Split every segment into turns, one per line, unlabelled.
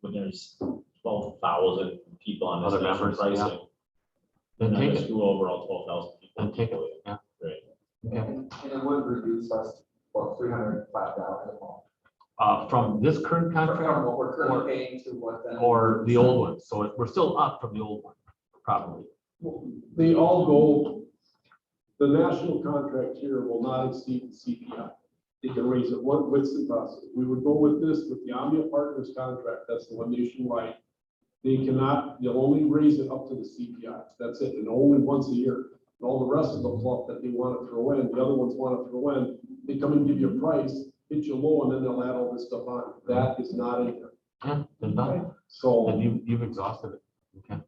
when there's twelve thousand people on this.
Other
national
members, yeah.
pricing,
Then
and
take
there's
it,
Two overall, twelve thousand people.
then take it, yeah.
Right.
Okay.
And and it would reduce us, well, three hundred five dollars a month.
Uh, from this current
From
contract
what we're currently paying to what then.
or the old one, so it- we're still up from the old one, probably.
They all go, the national contract here will not exceed the CPI. They can raise it, what, what's the process? We would go with this, with the Omnia Partners contract, that's the one nationwide. They cannot, they'll only raise it up to the CPI, that's it, and only once a year. And All the rest of the fluff that they want to throw in, the other ones want to throw in, they come and give you a price, hit you low, and then they'll add all this stuff on. That is not in there,
Yeah, then done,
so.
then you, uh, you've exhausted it. Okay.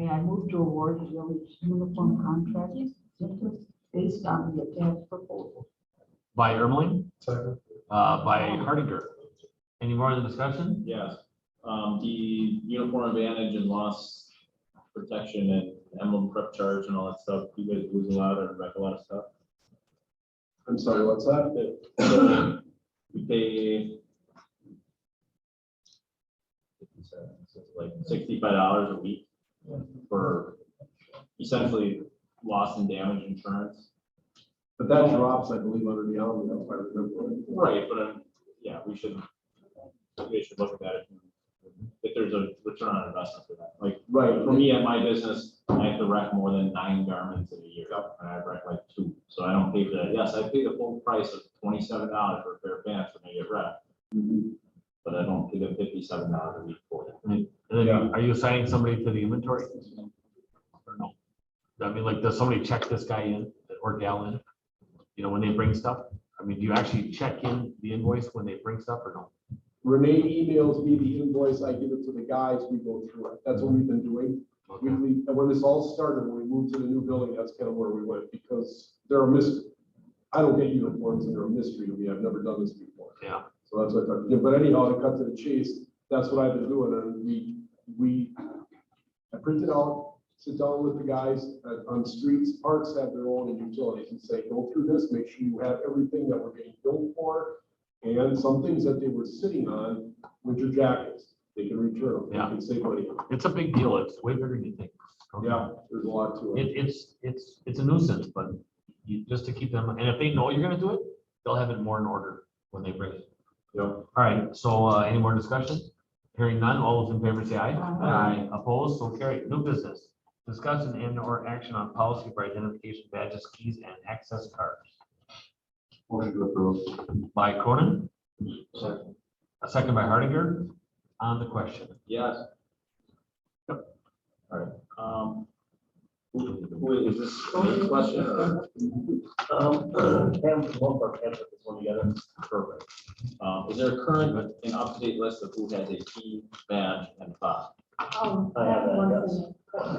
Okay, I move to award the village uniform contract based on the attached proposal.
By Ermeling, uh, by Hardinger. Any more in the discussion?
Yes, um, the uniform advantage and loss protection and emblem prep charge and all that stuff, you guys lose a lot and wreck a lot of stuff.
I'm sorry, what's that?
So, We pay so it's like sixty-five dollars a week for essentially loss and damage insurance.
But that drops, I believe, under the Omnia, if I remember. right.
Right, but, um, yeah, we should, we should look at that if there's a return on investment for that. Like,
Right,
for me at my business, I have to wreck more than nine garments in a year, and I wreck like two, so I don't pay for that. Yes, I pay the full price of twenty-seven dollars for a pair of pants when I get wrecked, but I don't pay the fifty-seven dollars a week for it.
And then you- are you assigning somebody to the inventory? Or no? I mean, like, does somebody check this guy in or gal in? You know, when they bring stuff? I mean, do you actually check in the invoice when they bring stuff or no?
Renee emails me the invoice, I give it to the guys, we go through it, that's what we've been doing. We,
Okay.
we, and when this all started, when we moved to the new building, that's kind of where we went, because there are mis, I don't get uniforms and they're a mystery to me, I've never done this before.
Yeah.
So that's what I thought, Yeah, but anyhow, to cut to the chase, that's what I've been doing, and we, we, I print it out, sit down with the guys uh, on streets, parks have their own and utilities, and say, go through this, make sure you have everything that we're getting billed for, and some things that they were sitting on, winter jackets, they can return, them. they
Yeah.
can save money. on them.
It's a big deal. It's way bigger than you think. Okay.
Yeah, there's a lot to it.
It, it's, it's, it's a nuisance, but you, just to keep them, and if they know you're gonna do it, they'll have it more in order when they bring it.
Yep.
All right, so, uh, any more discussion? Hearing none, all those in favor say aye.
Aye.
Opposed, so carried. New business, discussion and or action on policy for identification badges, keys and access cards.
Motion to approve.
By Cronin. A second by Hardinger on the question.
Yes. Yep. All right, um. who- who is this a question or?
Um, Pam, one part, Pam, put this one together.
Perfect. Um, is there a current and up-to-date list of who has a key, badge, and fob?
Oh,
I have that, yes. I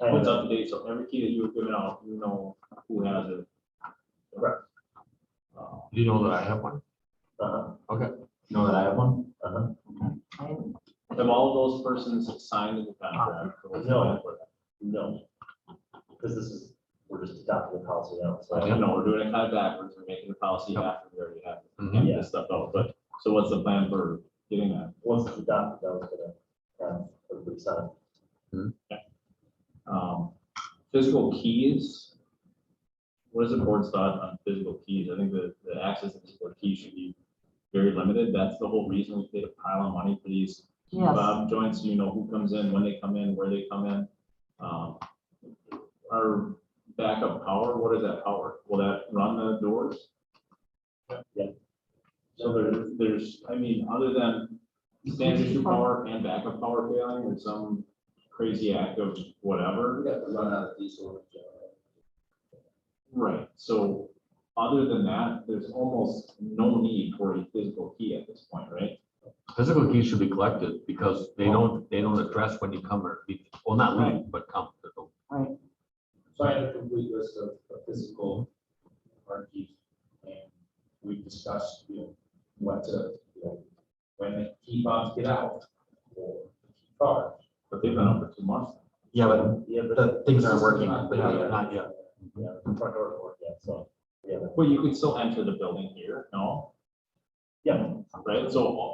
have
What's
a-
up to date, so every key that you were given out, you know who has it.
Correct.
Uh,
Do you know that I have one?
uh-huh,
You know that I have one?
uh-huh.
Have all of those persons signed the contract?
No, no. Because this is, we're just adopting the policy now, so.
Okay.
No, we're doing it kind of backwards, we're making the policy after we already have
Mhm.
have this stuff out, but, so what's the plan for getting that?
Once it's adopted, that was gonna, um, everybody sign.
Um, physical keys. What is the board's thought on physical keys? I think the, the access to physical keys should be very limited. That's the whole reason we paid a pile of money for these
Yes,
Bob joints, you know, who comes in, when they come in, where they come in. Um, Our backup power, what is that power? Will that run the doors?
Yeah.
So there, there's, I mean, other than standard issue power and backup power failing or some crazy act of whatever.
We got to run out of diesel.
Right, so other than that, there's almost no need for a physical key at this point, right?
Physical keys should be collected because
Oh.
they don't, they don't address when you come or, be- well, not leave, but come.
So I had a complete list of of physical hard keys. And we discussed, you know, what to, you know, when the key fobs get out or the key card.
But they've been up for two months.
Yeah, but
Yeah, but
the things aren't working.
Yeah.
Not yet.
yeah, the front door doesn't work yet, so. Yeah,
Well, you can still enter the building here, no?
yeah.
Right, so